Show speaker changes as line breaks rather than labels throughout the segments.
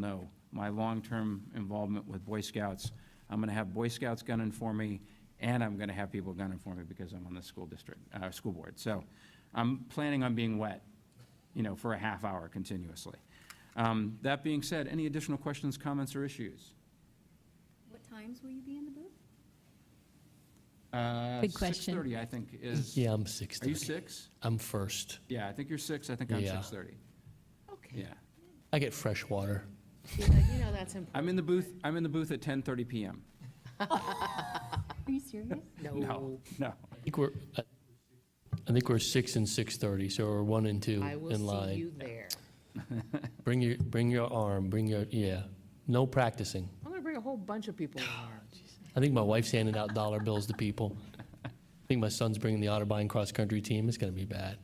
know my long-term involvement with Boy Scouts. I'm going to have Boy Scouts gunning for me, and I'm going to have people gunning for me because I'm on the school district, uh, school board. So I'm planning on being wet, you know, for a half hour continuously. Um, That being said, any additional questions, comments, or issues?
What times will you be in the booth?
Uh,
Good question.
6:30, I think, is,
Yeah, I'm
are you
6:30.
six?
I'm first.
Yeah, I think you're six, I think I'm
Yeah.
6:30.
Okay.
Yeah.
I get fresh water.
You know that's important.
I'm in the booth, I'm in the booth at 10:30 PM.
Are you serious?
No, no.
I think we're, I- I think we're 6 and 6:30, so we're 1 and 2
I
in
will see
line.
you there.
Bring your, bring your arm, bring your, yeah, no practicing.
I'm gonna bring a whole bunch of people in
I think my wife's handing out dollar bills to people. I think my son's bringing the Otterbein cross-country team. It's going to be bad.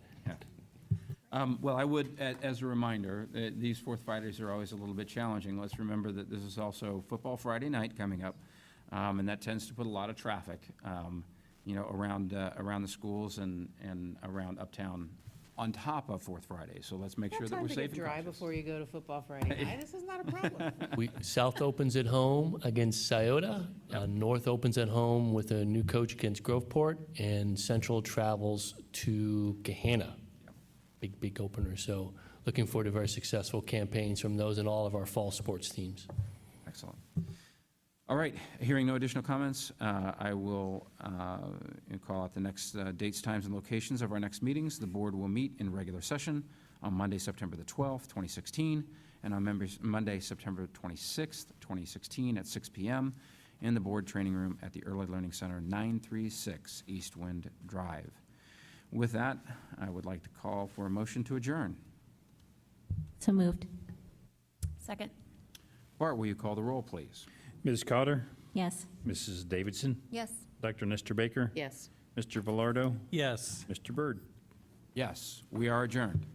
Um, Well, I would, a- as a reminder, uh, these Fourth Fridays are always a little bit challenging. Let's remember that this is also Football Friday night coming up, um, and that tends to put a lot of traffic, um, you know, around, uh, around the schools and, and around uptown on top of Fourth Friday. So let's make sure
there.
that we're
Time to
safe
get
and
dry
conscious.
before you go to football Friday night. This is not a problem.
We, South opens at home against Scioto. Uh, North opens at home with a new coach against Groveport, and Central travels to Gahanna. Big, big opener. So looking forward to very successful campaigns from those and all of our fall sports teams.
Excellent. All right, hearing no additional comments, uh, I will uh, call out the next uh, dates, times, and locations of our next meetings. The board will meet in regular session on Monday, September the 12th, 2016, and on members, Monday, September 26th, 2016, at 6 PM in the board training room at the Early Learning Center, 936 East Wind Drive. With that, I would like to call for a motion to adjourn.
So moved.
Second.
Bart, will you call the roll, please?
Ms. Cotter,
Yes.
Mrs. Davidson,
Yes.
Dr. Nestor Baker,
Yes.
Mr. Velardo,
Yes.
Mr. Byrd.
Yes, we are adjourned.